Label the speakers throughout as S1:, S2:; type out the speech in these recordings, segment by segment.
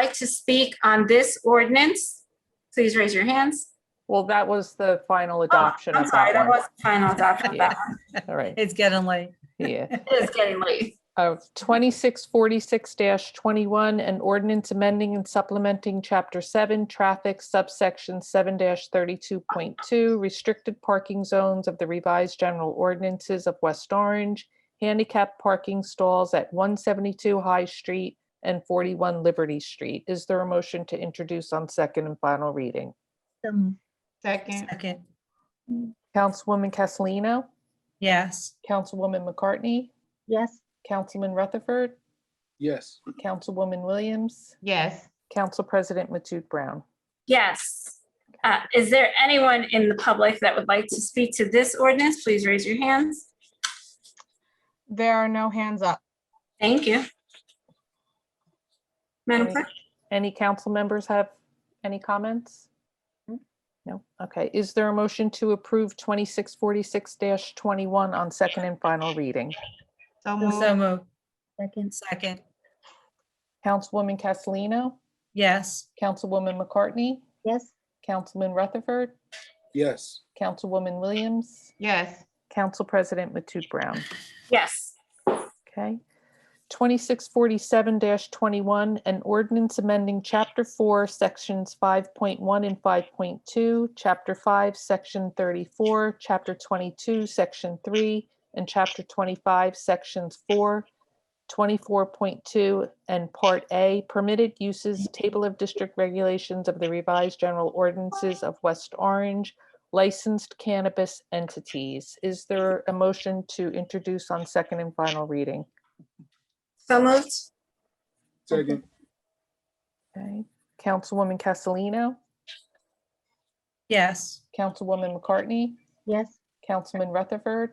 S1: like to speak on this ordinance? Please raise your hands.
S2: Well, that was the final
S1: Oh,
S2: adoption
S1: I'm
S2: of
S1: sorry,
S2: that
S1: that
S2: one.
S1: was final adoption. of that one.
S2: All right,
S3: It's getting late.
S2: yeah.
S1: It is getting late.
S2: Of twenty-six forty-six twenty-one, an ordinance amending and supplementing chapter seven, traffic subsection seven thirty-two point two, restricted parking zones of the revised general ordinances of West Orange, handicap parking stalls at one seventy-two High Street and forty-one Liberty Street. Is there a motion to introduce on second and final reading?
S4: Second,
S3: Second,
S2: Councilwoman Castellino,
S3: yes.
S2: Councilwoman McCartney,
S5: Yes.
S2: Councilman Rutherford,
S6: yes,
S2: Councilwoman Williams,
S4: Yes.
S2: Council President Matute Brown.
S1: Yes. Uh, Is there anyone in the public that would like to speak to this ordinance? Please raise your hands.
S4: There are no hands up.
S1: Thank you. Madam
S2: Any-
S1: Clerk?
S2: Any council members have any comments? Hmm? No? Okay. Is there a motion to approve 2646-21 on second and final reading?
S3: So
S4: So moved.
S3: moved.
S5: Second.
S3: Second,
S2: Councilwoman Castellino,
S3: yes.
S2: Councilwoman McCartney,
S5: Yes.
S2: Councilman Rutherford,
S6: yes,
S2: Councilwoman Williams,
S4: Yes.
S2: Council President Matute Brown.
S1: Yes.
S2: Okay. Twenty-six forty-seven twenty-one, an ordinance amending chapter four, sections five point one and five point two, chapter five, section thirty-four, chapter twenty-two, section three, and chapter twenty-five, sections four, 24.2, and part A, permitted uses, table of district regulations of the revised general ordinances of West Orange, licensed cannabis entities. Is
S4: Mm-hmm.
S2: there a motion to introduce on second and final reading?
S1: So moved?
S6: second,
S2: Okay, Councilwoman Castellino,
S3: Yes.
S2: Councilwoman McCartney,
S5: Yes.
S2: Councilman Rutherford,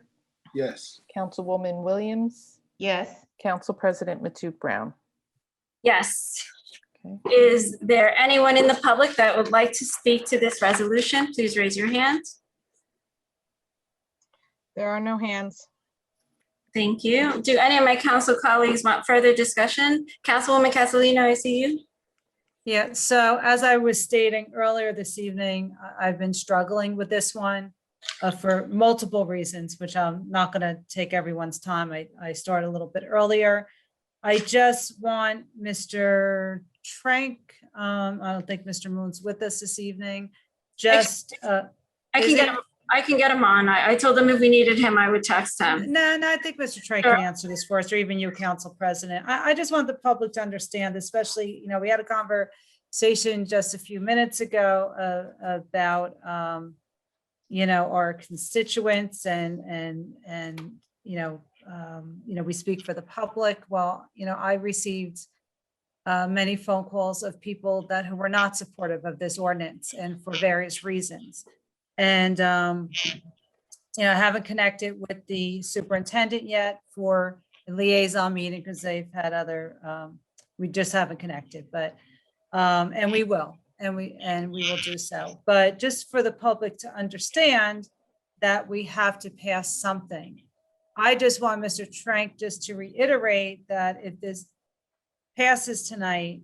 S6: yes,
S2: Councilwoman Williams,
S4: Yes.
S2: Council President Matute Brown.
S1: Yes.
S2: Okay.
S1: Is there anyone in the public that would like to speak to this resolution? Please raise your hand.
S4: There are no hands.
S1: Thank you. Do any of my council colleagues want further discussion? Councilwoman Castellino, I see you.
S3: Yeah, so as I was stating earlier this evening, I- I've been struggling with this one uh, for multiple reasons, which I'm not going to take everyone's time. I, I started a little bit earlier. I just want Mr. Trank, um, I don't think Mr. Moon's with us this evening, just, uh,
S1: I can
S3: Is
S1: get,
S3: it-
S1: him- I can get him on. I, I told them if we needed him, I would text him.
S3: No, no, I think Mr. Trey
S1: Um, Sure.
S3: can answer this for us, or even you, Council President. I, I just want the public to understand, especially, you know, we had a conversation just a few minutes ago uh, about, um, you know, our constituents and, and, and, you know, um, you know, we speak for the public. Well, you know, I received uh, many phone calls of people that who were not supportive of this ordinance and for various reasons. And, um, you know, I haven't connected with the superintendent yet for the liaison meeting because they've had other, um, we just haven't connected, but, um, and we will, and we, and we will do so. But just for the public to understand that we have to pass something. I just want Mr. Trank just to reiterate that if this passes tonight,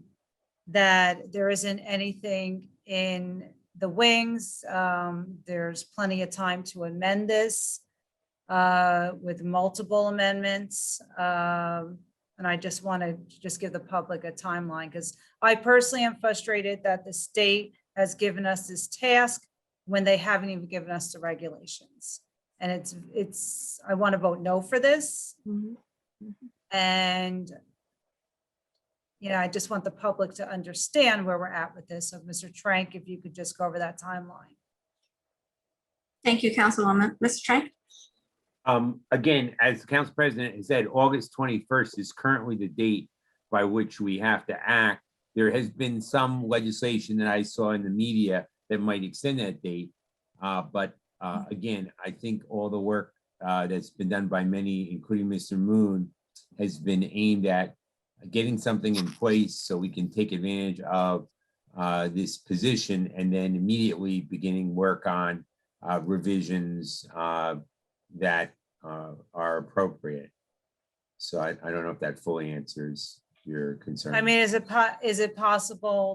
S3: that there isn't anything in the wings. Um, There's plenty of time to amend this uh, with multiple amendments. Um, And I just want to just give the public a timeline because I personally am frustrated that the state has given us this task when they haven't even given us the regulations. And it's, it's, I want to vote no for this. And you know, I just want the public to understand where we're at with this. So Mr. Trank, if you could just go over that timeline.
S1: Thank you, Councilwoman. Mr. Trank?
S7: Um, again, as the council president has said, August twenty-first is currently the date by which we have to act. There has been some legislation that I saw in the media that might extend that date. Uh, but, uh, again, I think all the work, uh, that's been done by many, including Mr. Moon, has been aimed at getting something in place so we can take advantage of, uh, this position and then immediately beginning work on, uh, revisions, uh, that uh, are appropriate. So I, I don't know if that fully answers your concern.
S3: I mean, is it po- is it possible